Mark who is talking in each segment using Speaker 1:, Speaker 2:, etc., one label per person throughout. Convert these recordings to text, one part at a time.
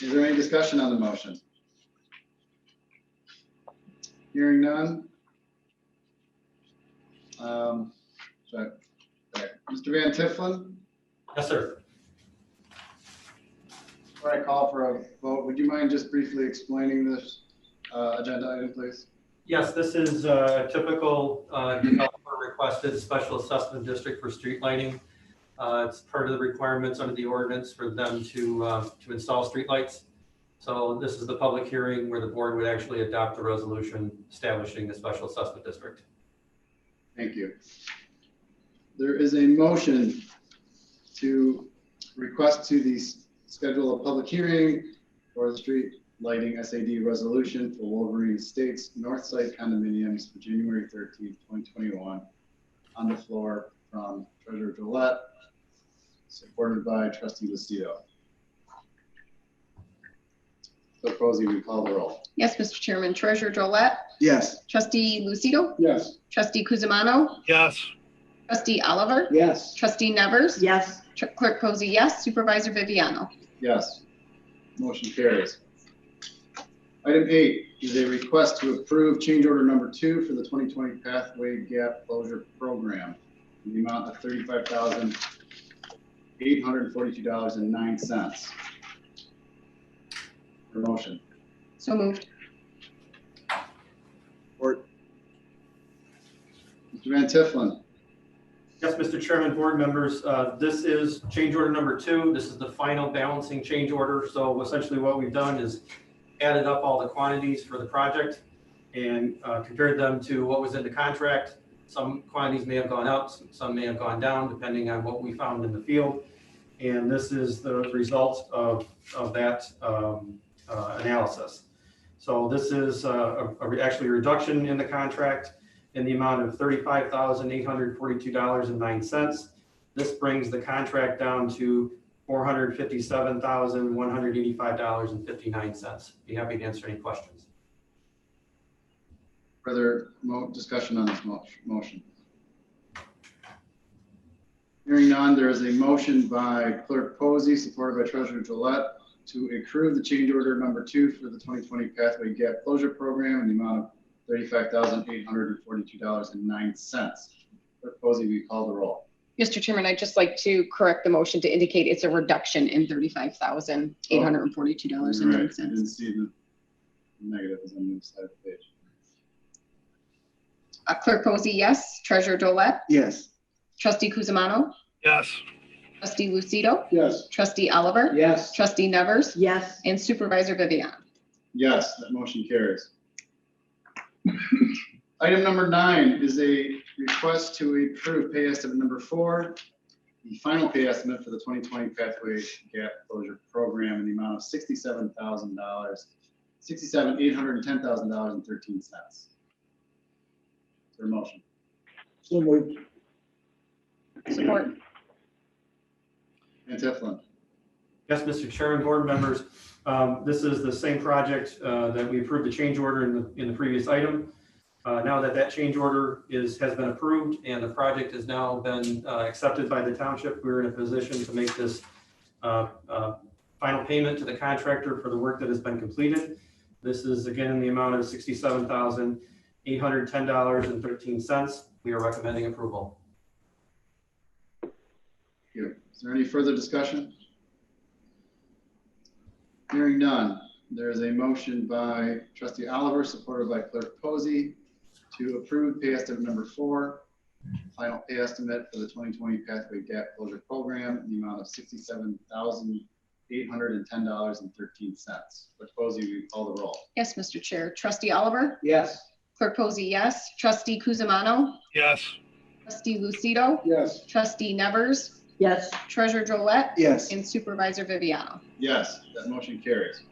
Speaker 1: Is there any discussion on the motion? Hearing none. Um, so, okay. Mr. Van Tifflin,
Speaker 2: Yes, sir.
Speaker 1: before I call for a vote, would you mind just briefly explaining this uh, agenda item, please?
Speaker 2: Yes, this is a typical uh, developer requested special assessment district for street lighting. Uh, It's part of the requirements under the ordinance for them to, um, to install streetlights. So this is the public hearing where the board would actually adopt the resolution establishing the special assessment district.
Speaker 1: Thank you. There is a motion to request to the s- schedule a public hearing for the street lighting SAD resolution for Wolverine Estates North Side condominiums for January thirteenth, twenty twenty-one. On the floor from Treasurer Gillette, supported by Trustee Lucido. Clerk Posey, we call the roll.
Speaker 3: Yes, Mr. Chairman. Treasurer Drollet,
Speaker 1: Yes.
Speaker 3: trustee Lucido,
Speaker 1: Yes.
Speaker 3: trustee Kuzimano,
Speaker 4: yes,
Speaker 3: trustee Oliver,
Speaker 1: Yes.
Speaker 3: trustee Nevers,
Speaker 5: yes,
Speaker 3: Tr- clerk Posey, yes, supervisor Viviano.
Speaker 1: Yes. Motion carries. Item eight is a request to approve change order number two for the 2020 Pathway Gap Closure Program in the amount of $35,842.09. For motion.
Speaker 3: So moved.
Speaker 1: Mr. Van Tifflin,
Speaker 2: Yes, Mr. Chairman, board members, uh, this is change order number two. This is the final balancing change order. So essentially what we've done is added up all the quantities for the project and uh, compared them to what was in the contract. Some quantities may have gone up, some- some may have gone down, depending on what we found in the field. And this is the result of, of that um, uh, analysis. So this is uh, a- a- actually a reduction in the contract in the amount of thirty-five thousand eight hundred forty-two dollars and nine cents. This brings the contract down to four hundred fifty-seven thousand one hundred eighty-five dollars and fifty-nine cents. Be happy to answer any questions.
Speaker 1: further mo- discussion on this mo- motion. Hearing none, there is a motion by Clerk Posey, supported by Treasurer Gillette, to approve the change order number two for the 2020 Pathway Gap Closure Program in the amount of $35,842.09. Clerk Posey, we call the roll.
Speaker 3: Mr. Chairman, I'd just like to correct the motion to indicate it's a reduction in thirty-five thousand, eight hundred and forty-two dollars and
Speaker 1: You're
Speaker 3: nine
Speaker 1: right, I didn't
Speaker 3: cents.
Speaker 1: see the negatives on the side of the page.
Speaker 3: Uh, Clerk Posey, yes. Treasurer Drollet,
Speaker 1: Yes.
Speaker 3: trustee Kuzimano,
Speaker 4: yes,
Speaker 3: trustee Lucido,
Speaker 1: Yes.
Speaker 3: trustee Oliver,
Speaker 1: Yes.
Speaker 3: trustee Nevers,
Speaker 5: yes,
Speaker 3: and supervisor Viviano.
Speaker 1: Yes, that motion carries. Item number nine is a request to approve pay estimate number four, the final pay estimate for the 2020 Pathway Gap Closure Program in the amount of $67,000, 67, $810,013. Is there a motion?
Speaker 3: Support.
Speaker 1: Van Tifflin,
Speaker 2: Yes, Mr. Chairman, board members, um, this is the same project uh, that we approved the change order in the, in the previous item. Uh, Now that that change order is, has been approved and the project has now been uh, accepted by the township, we're in a position to make this uh, uh, final payment to the contractor for the work that has been completed. This is again in the amount of sixty-seven thousand, eight hundred ten dollars and thirteen cents. We are recommending approval.
Speaker 1: here. Is there any further discussion? Hearing none, there is a motion by trustee Oliver, supported by clerk Posey, to approve pay estimate number four, final pay estimate for the 2020 Pathway Gap Closure Program in the amount of $67,810.13. Clerk Posey, we call the roll.
Speaker 3: Yes, Mr. Chair. Trustee Oliver,
Speaker 1: Yes.
Speaker 3: clerk Posey, yes. Trustee Kuzimano,
Speaker 4: yes,
Speaker 3: Trustee Lucido,
Speaker 1: Yes.
Speaker 3: trustee Nevers,
Speaker 5: yes,
Speaker 3: treasurer Drollet,
Speaker 1: Yes.
Speaker 3: and supervisor Viviano.
Speaker 1: Yes, that motion carries.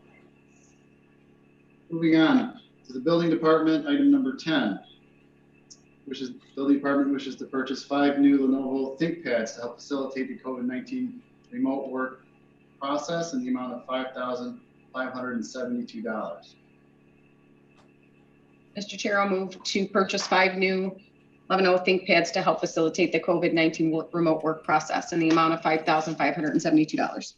Speaker 1: Moving on to the building department, item number ten. Which is, building department wishes to purchase five new Lenovo ThinkPads to help facilitate the COVID nineteen remote work process in the amount of five thousand five hundred and seventy-two dollars.
Speaker 3: Mr. Chair, I'll move to purchase five new oh Levino ThinkPads to help facilitate the COVID-19 wo- remote work process in the amount of $5,572.